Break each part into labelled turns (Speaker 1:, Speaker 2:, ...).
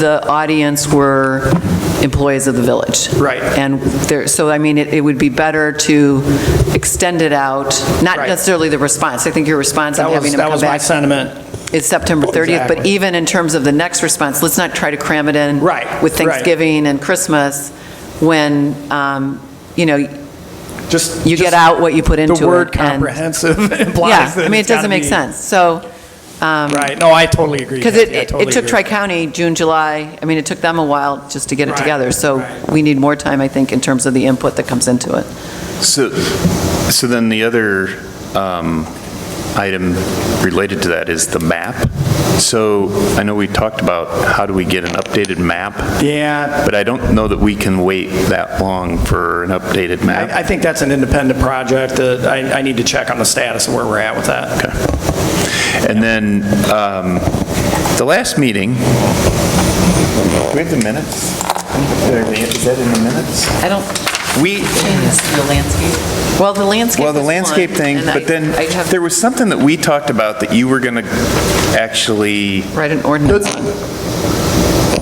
Speaker 1: the audience were employees of the village.
Speaker 2: Right.
Speaker 1: And there, so I mean, it it would be better to extend it out, not
Speaker 2: Right.
Speaker 1: necessarily the response. I think your response on
Speaker 2: That
Speaker 1: having
Speaker 2: was,
Speaker 1: them
Speaker 2: that
Speaker 1: come
Speaker 2: was my
Speaker 1: back
Speaker 2: sentiment.
Speaker 1: is September 30th, but
Speaker 2: Exactly.
Speaker 1: even in terms of the next response, let's not try to cram it in.
Speaker 2: Right,
Speaker 1: With
Speaker 2: right.
Speaker 1: Thanksgiving and Christmas, when, um, you know,
Speaker 2: Just.
Speaker 1: you get
Speaker 2: just
Speaker 1: out what you put into it.
Speaker 2: The word
Speaker 1: and-
Speaker 2: comprehensive
Speaker 1: Yeah,
Speaker 2: implies that.
Speaker 1: I mean, it
Speaker 2: it's gotta
Speaker 1: doesn't make
Speaker 2: be-
Speaker 1: sense. So,
Speaker 2: Right, no, I totally agree.
Speaker 1: because
Speaker 2: Kathy, I
Speaker 1: it, it
Speaker 2: totally
Speaker 1: took
Speaker 2: agree.
Speaker 1: Tri-County, June, July, I mean, it took them a while just to get it
Speaker 2: Right,
Speaker 1: together. So
Speaker 2: right.
Speaker 1: we need more time, I think, in terms of the input that comes into it.
Speaker 3: So, so then the other um, item related to that is the map. So I know we talked about how do we get an updated map,
Speaker 2: Yeah,
Speaker 3: but I don't know that we can wait that long for an updated
Speaker 2: I, I
Speaker 3: map.
Speaker 2: think that's an independent project that I, I need to check on the status of where we're at with that.
Speaker 3: Okay. And then um, the last meeting, do we have the minutes? Is that in the minutes?
Speaker 1: I don't,
Speaker 3: We,
Speaker 1: the landscape? Well, the landscape
Speaker 3: Well, the
Speaker 1: was one,
Speaker 3: landscape thing,
Speaker 1: and I-
Speaker 3: but then
Speaker 1: I have-
Speaker 3: there was something that we talked about that you were going to actually,
Speaker 1: Write an ordinance on.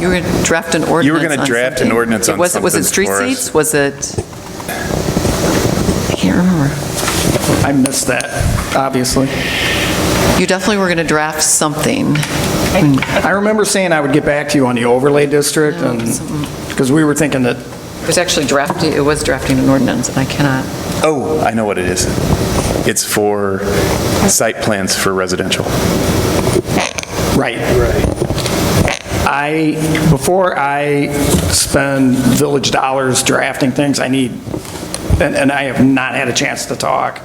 Speaker 1: You were going to draft an ordinance
Speaker 3: were gonna
Speaker 1: on
Speaker 3: draft an
Speaker 1: something.
Speaker 3: ordinance
Speaker 1: It
Speaker 3: on
Speaker 1: was- Was it
Speaker 3: something
Speaker 1: street
Speaker 3: for us.
Speaker 1: seats? Was it? I can't remember.
Speaker 2: I missed that, obviously.
Speaker 1: You definitely were going to draft something.
Speaker 2: I remember saying I would get back to you on the overlay district and, because we were thinking that,
Speaker 1: It was actually drafting, it was drafting an ordinance, and I cannot.
Speaker 3: oh, I know what it is. It's for site plans for residential.
Speaker 2: right. Right. I, before I spend village dollars drafting things, I need, and, and I have not had a chance to talk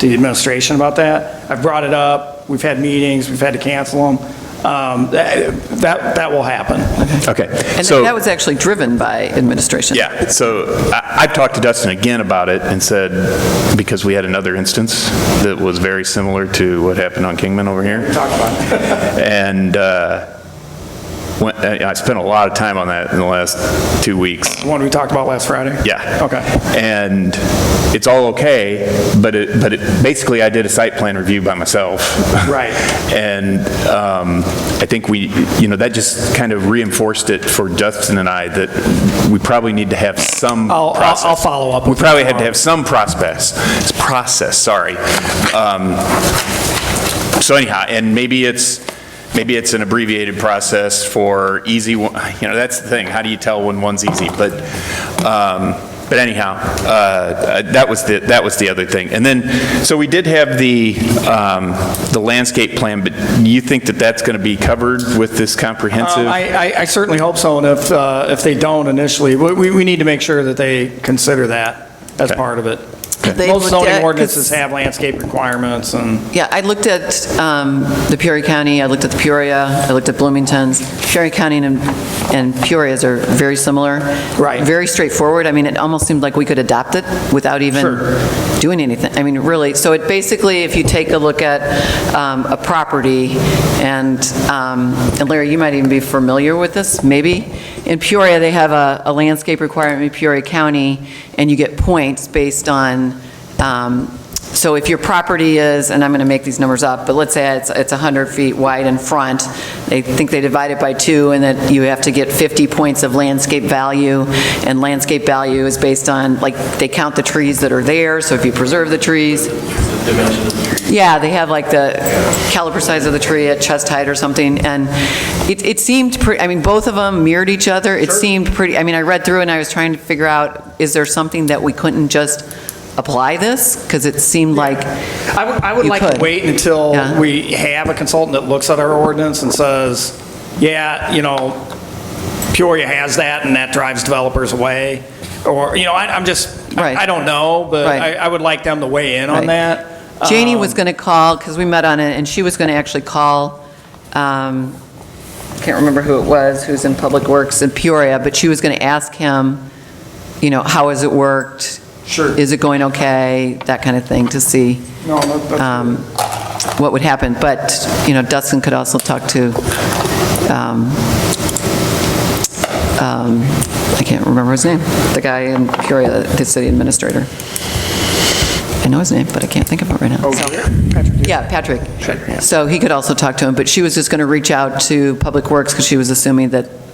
Speaker 2: to the administration about that. I've brought it up, we've had meetings, we've had to cancel them. Um, That, that that will happen.
Speaker 3: Okay,
Speaker 1: And
Speaker 3: so,
Speaker 1: that was actually driven by administration.
Speaker 3: yeah, so I- I've talked to Dustin again about it and said, because we had another instance that was very similar to what happened on Kingman over here.
Speaker 2: Talk about it.
Speaker 3: And uh, when- I I spent a lot of time on that in the last two weeks.
Speaker 2: The one we talked about last Friday?
Speaker 3: Yeah.
Speaker 2: Okay.
Speaker 3: And it's all okay, but it, but it, basically, I did a site plan review by myself.
Speaker 2: Right.
Speaker 3: And um, I think we, you know, that just kind of reinforced it for Justin and I that we probably need to have some
Speaker 2: I'll- I'll-
Speaker 3: process.
Speaker 2: I'll follow up
Speaker 3: We
Speaker 2: with you
Speaker 3: probably had to
Speaker 2: tomorrow.
Speaker 3: have some process, It's process, sorry. Um, So anyhow, and maybe it's, maybe it's an abbreviated process for easy, one- you know, that's the thing, how do you tell when one's easy? But, um, but anyhow, uh, that was the, that was the other thing. And then, so we did have the, um, the landscape plan, but you think that that's going to be covered with this comprehensive?
Speaker 2: Um, I, I- I certainly hope so, and if, uh, if they don't initially, we- we, we need to make sure that they consider that as
Speaker 3: Okay.
Speaker 2: part of it.
Speaker 1: They
Speaker 2: Most
Speaker 1: looked at-
Speaker 2: zoning ordinances have landscape requirements, and
Speaker 1: Yeah, I looked at um, the Peoria County, I looked at the Peoria, I looked at Bloomington's. Peoria County and and Peoria's are very similar.
Speaker 2: Right.
Speaker 1: Very straightforward. I mean, it almost seemed like we could adopt it without even doing anything. I mean, really, so it basically, if you take a look at um, a property, and um, and Larry, you might even be familiar with this, maybe. In Peoria, they have a a landscape requirement in Peoria County, and you get points based on um, so if your property is, and I'm going to make these numbers up, but let's say it's, it's 100 feet wide in front, they think they divide it by two, and that you have to get 50 points of landscape value, and landscape value is based on, like, they count the trees that are there, so if you preserve the trees. Yeah, they have like the caliper size of the tree at chest height or something, and it, it seemed, pre- I mean, both of them mirrored each other. It seemed pretty, I mean, I read through and I was trying to figure out, is there something that we couldn't just apply this? Because it seemed like,
Speaker 2: I would, I would
Speaker 1: You
Speaker 2: like to
Speaker 1: could.
Speaker 2: wait until
Speaker 1: Yeah.
Speaker 2: we have a consultant that looks at our ordinance and says, yeah, you know, Peoria has that, and that drives developers away, or, you know, I, I'm just,
Speaker 1: Right.
Speaker 2: I I don't know, but
Speaker 1: Right.
Speaker 2: I, I would like them to weigh in
Speaker 1: Right.
Speaker 2: on that.
Speaker 1: Janie
Speaker 2: Um,
Speaker 1: was going to call, because we met on it, and she was going to actually call, um, can't remember who it was, who's in Public Works in Peoria, but she was going to ask him, you know, how has it worked?
Speaker 2: Sure.
Speaker 1: Is it going okay? That kind of thing, to see.
Speaker 2: No, that- that's-
Speaker 1: um, what would happen, but, you know, Dustin could also talk to, um, um, I can't remember his name, the guy in Peoria, the city administrator. I know his name, but I can't think of it right now.
Speaker 2: Oh,
Speaker 1: So- Yeah, Patrick. So he could also talk to him, but she was just going to reach out to Public Works because she was assuming that